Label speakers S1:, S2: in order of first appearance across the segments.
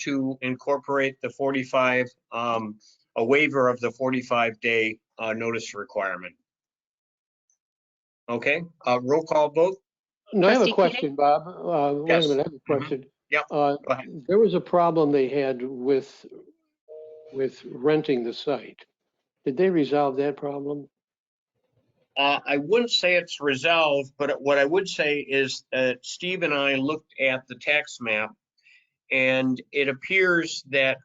S1: to incorporate the 45, um, a waiver of the 45-day uh, notice requirement. Okay, uh, roll call vote?
S2: No, I have a
S3: Trustee
S2: question,
S3: Keating?
S2: Bob. Uh, Wait a
S1: Yes. Mm-hmm.
S2: minute, I have a question.
S1: Yep,
S2: Uh,
S1: ahead.
S2: There was a problem they had with, with renting the site. Did they resolve that problem?
S1: Uh, I wouldn't say it's resolved, but what I would say is that Steve and I looked at the tax map and it appears that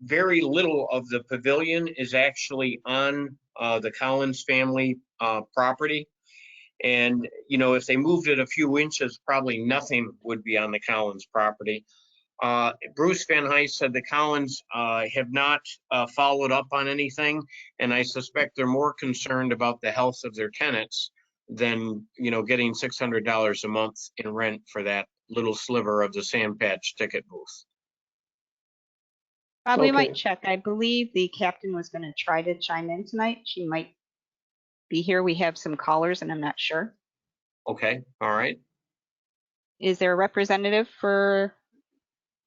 S1: very little of the pavilion is actually on, uh, the Collins family, uh, property. And, you know, if they moved it a few inches, probably nothing would be on the Collins property. Uh, Bruce Van Heist said the Collins, uh, have not, uh, followed up on anything and I suspect they're more concerned about the health of their tenants than, you know, getting six hundred dollars a month in rent for that little sliver of the sand patch ticket booth.
S3: Bob, we
S2: Okay.
S3: might check. I believe the captain was going to try to chime in tonight. She might be here. We have some callers and I'm not sure.
S1: Okay, all right.
S3: Is there a representative for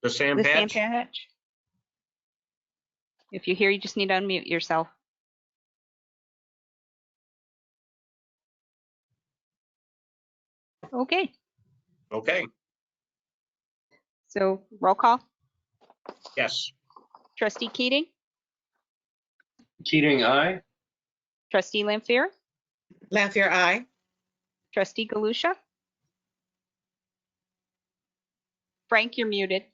S1: The sand
S3: the Sam
S1: patch?
S3: Patch? If you're here, you just need to unmute yourself. Okay,
S1: Okay,
S3: so roll call.
S1: yes.
S3: Trustee Keating,
S4: Keating, aye.
S3: trustee Lampier,
S5: Lampier, aye.
S3: trustee Galusha. Frank, you're muted.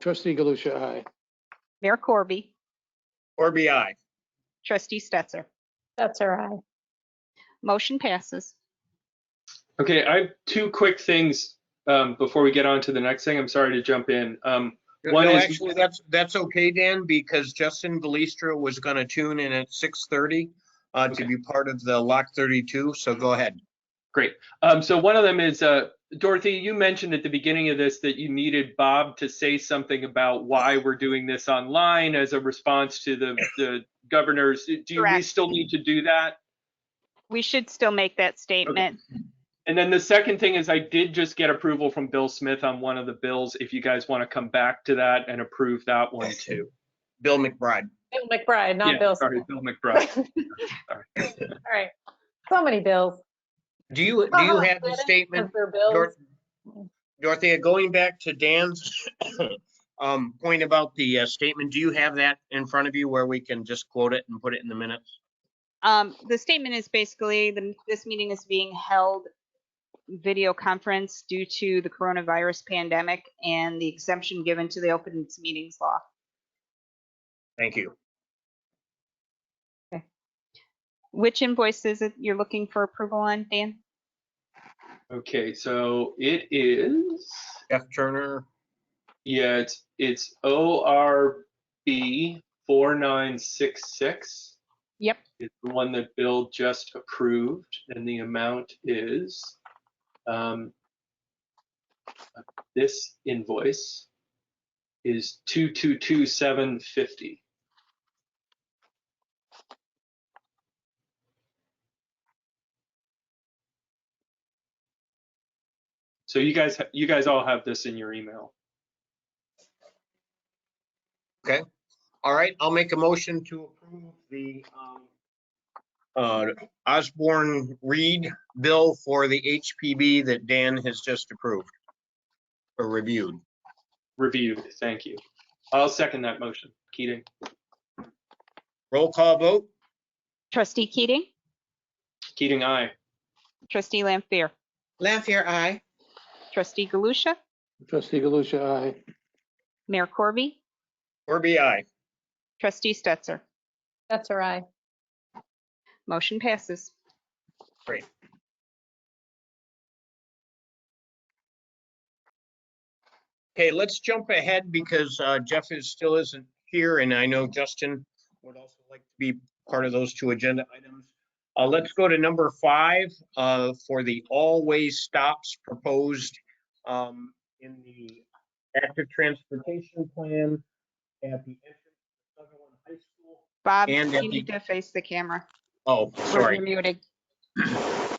S2: Trustee Galusha, aye.
S3: Mayor Corby.
S1: Or BI.
S3: Trustee Stetser.
S6: That's all right.
S3: Motion passes.
S4: Okay, I have two quick things um, before we get on to the next thing. I'm sorry to jump in. Um, One
S1: No,
S4: is-
S1: actually, that's, that's okay, Dan, because Justin Belistro was gonna tune in at six thirty uh, to
S4: Okay.
S1: be part of the Lock thirty-two, so go ahead.
S4: um, so one of them is uh, Dorothy. You mentioned at the beginning of this that you needed Bob to say something about why we're doing this online as a response to the the governors. Do you, we
S3: Correct.
S4: still need to do that?
S3: We should still make that statement.
S4: And then the second thing is I did just get approval from Bill Smith on one of the bills. If you guys want to come back to that and approve that one too.
S1: Bill McBride.
S6: Bill McBride,
S4: Yeah,
S6: not Bill.
S4: Sorry,
S6: Smith.
S4: Bill McBride.
S6: All right. So many bills.
S1: Do you, do you have the statement
S6: Because they're bills.
S1: Dor- Dorothea, going back to Dan's um, point about the uh, statement, do you have that in front of you where we can just quote it and put it in the minutes?
S3: Um, the statement is basically, the, this meeting is being held video conference due to the coronavirus pandemic and the exemption given to the open meetings law.
S1: Thank you.
S3: Which invoice is it you're looking for approval on, Dan?
S4: Okay, so it is,
S1: Jeff Turner,
S4: yeah, it's, it's ORB 4966.
S3: Yep.
S4: It's the one that Bill just approved, and the amount is um, this invoice is 222750. So you guys, ha- you guys all have this in your email.
S1: all right, I'll make a motion to approve the um, uh, Osborne Reed bill for the HPB that Dan has just approved or reviewed.
S4: reviewed. Thank you. I'll second that motion. Keating,
S1: Roll call vote?
S3: Trustee Keating,
S4: Keating, aye.
S3: trustee Lampier,
S5: Lampier, aye.
S3: trustee Galusha,
S2: Trustee Galusha, aye.
S3: Mayor Corby,
S1: Or BI?
S3: trustee Stetser.
S6: That's all right.
S3: Motion passes.
S1: Okay, let's jump ahead because uh, Jeff is, still isn't here, and I know Justin would also like to be part of those two agenda items. Uh, Let's go to number five uh, for the always stops proposed um, in the active transportation plan at the entrance to Sutherland High School.
S3: Bob,
S1: And
S3: you
S1: if you-
S3: need to face the camera.
S1: Oh,
S3: You're
S1: sorry.
S3: muted.